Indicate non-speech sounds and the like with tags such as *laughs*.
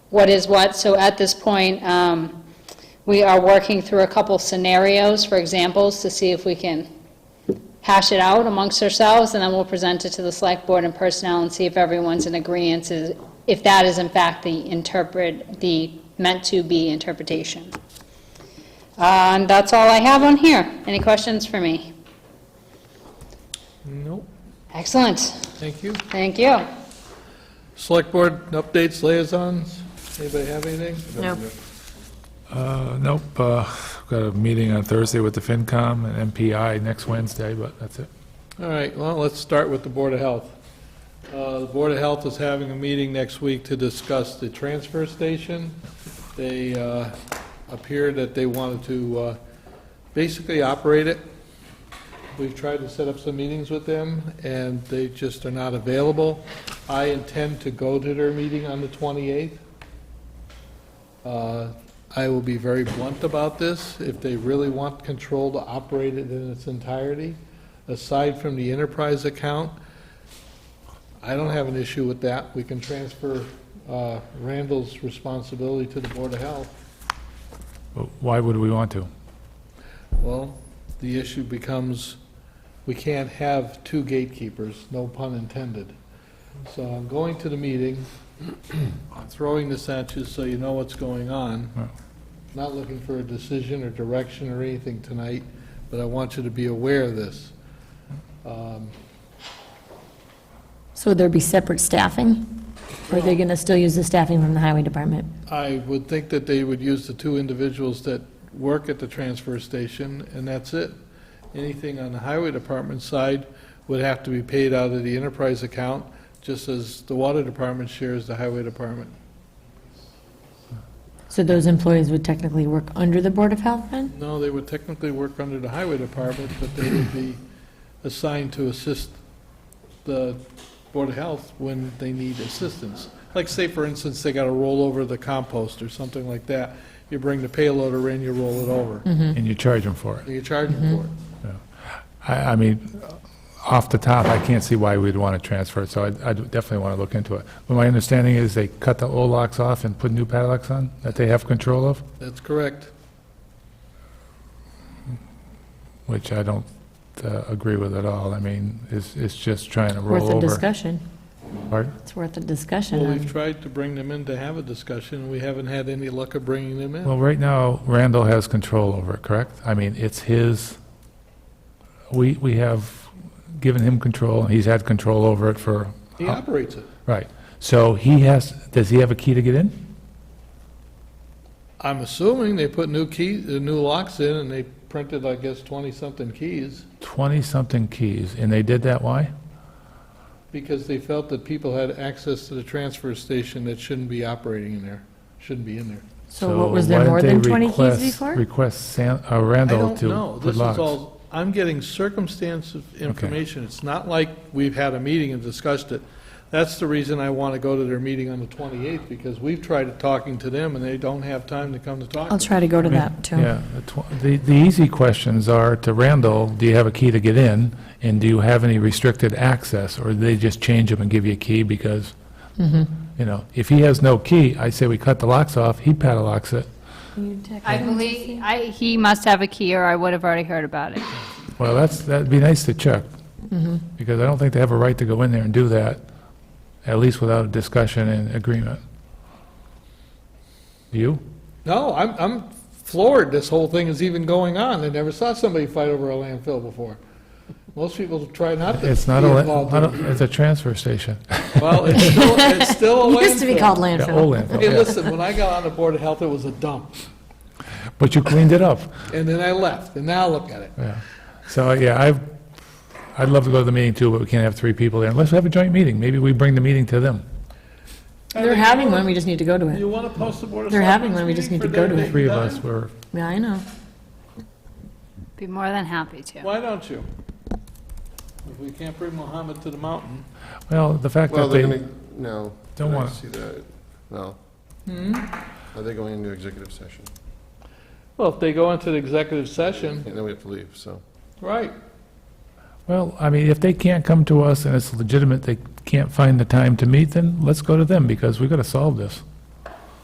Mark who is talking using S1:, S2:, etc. S1: what is what. So at this point, um, we are working through a couple scenarios for examples to see if we can hash it out amongst ourselves, and then we'll present it to the select board and personnel and see if everyone's in agreeance, is- if that is in fact the interpret, the meant-to-be interpretation. Uh, And that's all I have on here. Any questions for me?
S2: Nope,
S1: Excellent.
S2: thank you.
S1: Thank you.
S2: Select Board updates, liaisons, anybody have anything?
S3: No.
S4: Uh, Nope, uh, got a meeting on Thursday with the FinCom and MPI next Wednesday, but that's it.
S2: All right, well, let's start with the Board of Health. Uh, The Board of Health is having a meeting next week to discuss the transfer station. They uh, appear that they wanted to uh, basically operate it. We've tried to set up some meetings with them, and they just are not available. I intend to go to their meeting on the 28th. Uh, I will be very blunt about this. If they really want control to operate it in its entirety, aside from the enterprise account, I don't have an issue with that. We can transfer uh, Randall's responsibility to the Board of Health.
S4: But Why would we want to?
S2: Well, the issue becomes, we can't have two gatekeepers, no pun intended. So I'm going to the meeting, *clears throat* I'm throwing this at you so you know what's going
S4: Right.
S2: on. Not looking for a decision or direction or anything tonight, but I want you to be aware of this. Um,
S3: So would there be separate staffing? Or are they going to still use the staffing from the highway department?
S2: I would think that they would use the two individuals that work at the transfer station, and that's it. Anything on the highway department side would have to be paid out of the enterprise account, just as the water department shares the highway department.
S3: So those employees would technically work under the Board of Health then?
S2: No, they would technically work under the highway department, but they would be assigned to assist the Board of Health when they need assistance. Like, say, for instance, they got to roll over the compost or something like that. You bring the payloader in, you roll it over.
S4: And you charge them for it.
S2: You charge them for it.
S4: I, I mean, off the top, I can't see why we'd want to transfer it, so I I definitely want to look into it. But my understanding is they cut the old locks off and put new padlocks on that they have control of,
S2: That's correct.
S4: which I don't uh, agree with at all. I mean, it's, it's just trying to roll
S3: Worth a
S4: over.
S3: discussion.
S4: Pardon?
S3: It's worth a
S2: Well,
S3: discussion.
S2: we've tried to bring them in to have a discussion, and we haven't had any luck of bringing them in.
S4: Well, right now, Randall has control over it, correct? I mean, it's his, we, we have given him control, and he's had control over it for,
S2: He operates it.
S4: right. So he has, does he have a key to get in?
S2: I'm assuming they put new keys, new locks in, and they printed, I guess, 20-something keys,
S4: 20-something keys, and they did that, why?
S2: because they felt that people had access to the transfer station that shouldn't be operating in there, shouldn't be in there.
S3: So what, was there
S4: why
S3: more
S4: did
S3: than
S4: they
S3: 20 keys
S4: request-
S3: before?
S4: Request San- uh,
S2: I
S4: Randall
S2: don't
S4: to
S2: know.
S4: put
S2: This is
S4: locks.
S2: all, I'm getting circumstance of information. It's not like we've had a meeting and discussed it. That's the reason I want to go to their meeting on the 28th, because we've tried talking to them, and they don't have time to come to talk to
S3: I'll
S2: us.
S3: try to go to
S4: I mean,
S3: that too.
S4: Yeah, the tw- the, the easy questions are to Randall, do you have a key to get in? And do you have any restricted access, or do they just change them and give you a key because,
S3: Mm-hmm.
S4: you know, if he has no key, I say we cut the locks off, he padlocks it.
S1: I believe, I, he must have a key, or I would have already heard about it.
S4: Well, that's, that'd be nice to check,
S3: Mm-hmm.
S4: because I don't think they have a right to go in there and do that, at least without a discussion and agreement. Do you?
S2: No, I'm, I'm floored this whole thing is even going on. I never saw somebody fight over a landfill before. Most people try not to be
S4: It's not a,
S2: involved
S4: la- I
S2: in it.
S4: don't- it's a transfer station.
S2: Well,
S4: *laughs*
S2: it's still, it's still a landfill.
S3: Used to be called
S4: Yeah, old
S3: landfill. *laughs*
S4: landfill,
S2: Hey,
S4: yeah.
S2: listen, when I got on the Board of Health, it was a dump,
S4: But you cleaned it up.
S2: and then I left, and now look at it.
S4: Yeah. So, yeah, I, I'd love to go to the meeting too, but we can't have three people there. Unless we have a joint meeting, maybe we bring the meeting to them.
S3: They're having one, we just need to go to
S2: You
S3: it.
S2: want to post the Board of
S3: They're having
S2: Selectmen's
S3: one, we just
S2: meeting
S3: need to
S2: for
S3: go to
S2: their
S3: it.
S4: Three of
S2: date
S4: us
S2: and
S4: were,
S3: Yeah, I know.
S1: Be more than happy to.
S2: time? Why don't you? If we can't bring Mohammed to the mountain.
S4: well, the fact that
S5: Well,
S4: they
S5: they're gonna, no.
S4: don't
S5: I
S4: wanna-
S5: See that, no. Are they going into executive session?
S2: Well, if they go into the executive session,
S5: And then we have to leave, so.
S2: right.
S4: Well, I mean, if they can't come to us and it's legitimate, they can't find the time to meet, then let's go to them, because we've got to solve this.